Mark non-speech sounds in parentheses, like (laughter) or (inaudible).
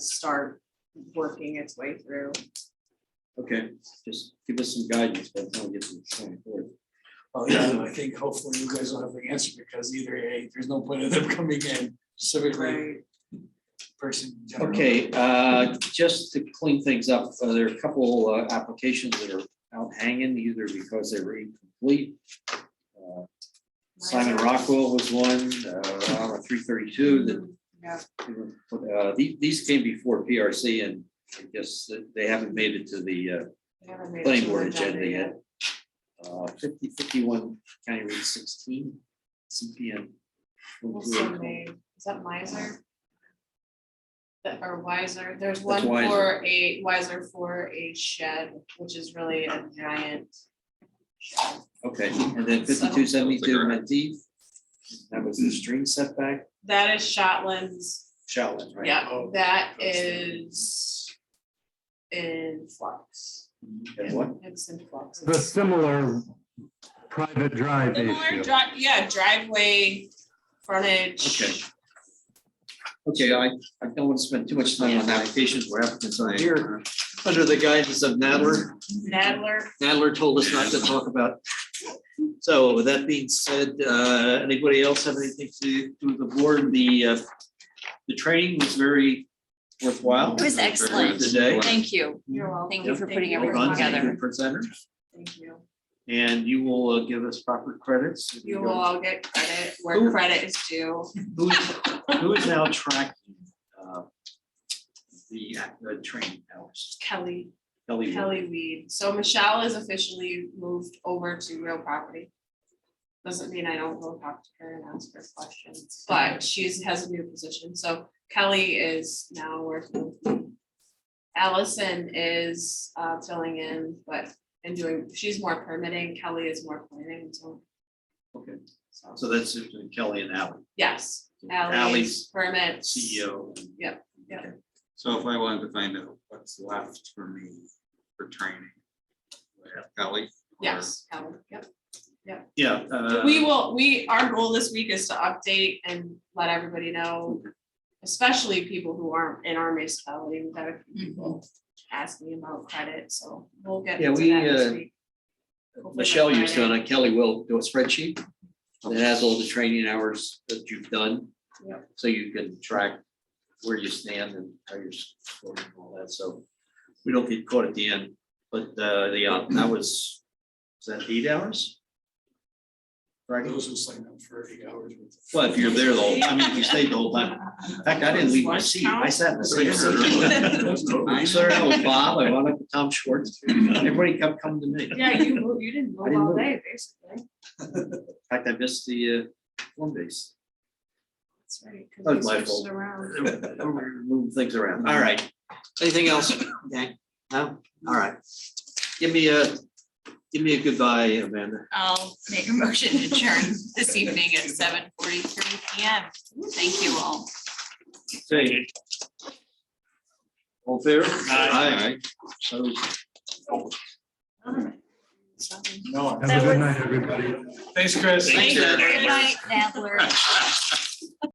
start working its way through. Okay, just give us some guidance, by the time we get to the twenty-fourth. Well, yeah, and I think hopefully you guys will have an answer because either A, there's no point in them (laughs) coming in specifically Right, person. in general. Okay, uh, just to clean things up, uh, there are a couple uh, applications that are out hanging, either because they were incomplete. Uh, Simon Rockwell was one, uh, three thirty-two, that yeah, Uh, the- These came before PRC and I guess that they haven't made it to the uh, they haven't made it to planning the board agenda yet. Uh, 50 51 County Route sixteen, CPM. Also made, is that Miser? That or Wiser, there's one That's for a Wiser for a shed, which is really a giant. shed. Okay, and then fifty-two seventy-two Menteith. That was the stream setback, That is Shotlands, Shaolin, right? yeah, Oh. that is in flux. And what? It's in flux. the similar private drive Similar issue. dri- yeah, driveway, frontage. Okay. Okay, I, I don't want to spend too much time on applications where applicants aren't here. under the guidance of Nadler. Nadler, Nadler told us not to talk about. So with that being said, uh, anybody else have anything to do with the board? The, uh, the training was very worthwhile. It was excellent. Today. Thank you. you're welcome. Thank you for Thank putting you. everything Well done, thank you, together. Presenter, Thank you. and you will uh, give us proper credits. You will all get credit where Who- credit is due. Who is- who is now tracking, uh, the, the training hours? Kelly, Kelly. will. Kelly Weed. So Michelle is officially moved over to real property. Doesn't mean I don't go talk to her and ask her questions, but she's has a new position. So Kelly is now working. with me. Allison is uh filling in, but and doing, she's more permitting. Kelly is more planning. So Okay, so that's between Kelly and Ally, yes, Allie's Ally's permits. E CEO. and- Yep, yep. Okay. So if I wanted to find out what's left for me for training. do I have Kelly. or- Yes, Kelly, yep. Yeah. Um, uh, We will, we, our goal this week is to update and let everybody know, especially people who aren't in our municipality, we've had a few people ask me about credit, so we'll get Yeah, into we, that this uh, week. Hopefully by Michelle used to, Friday. and I- Kelly will do a spreadsheet that has all the training hours that you've done. Yep. So you can track where you stand and how you're scoring and all that, so we don't get caught at the end, but uh, the, uh, that was, was that eight hours? For Right, Those who sign up for eight hours. with- well, if you're there the whole, I mean, if you stayed the whole time, in fact, I didn't leave my seat, I sat in the same seat. (laughs) I started out with Bob, I wound up with Tom Schwartz, everybody kept coming to me. Yeah, you moved, you didn't I move didn't all move. day, basically, In fact, I missed the uh, home (laughs) base. that's right, That because was my you switched fault. around. Move things around. All right, anything else? Okay, no, all right. Give me a, give me a goodbye, Amanda. I'll make a motion to adjourn this evening at seven forty-three PM. Thank you all. Say. All fair? Aye. So Something. No. Have a good night, everybody. Thanks, Chris. Thank you. Good night, Nadler.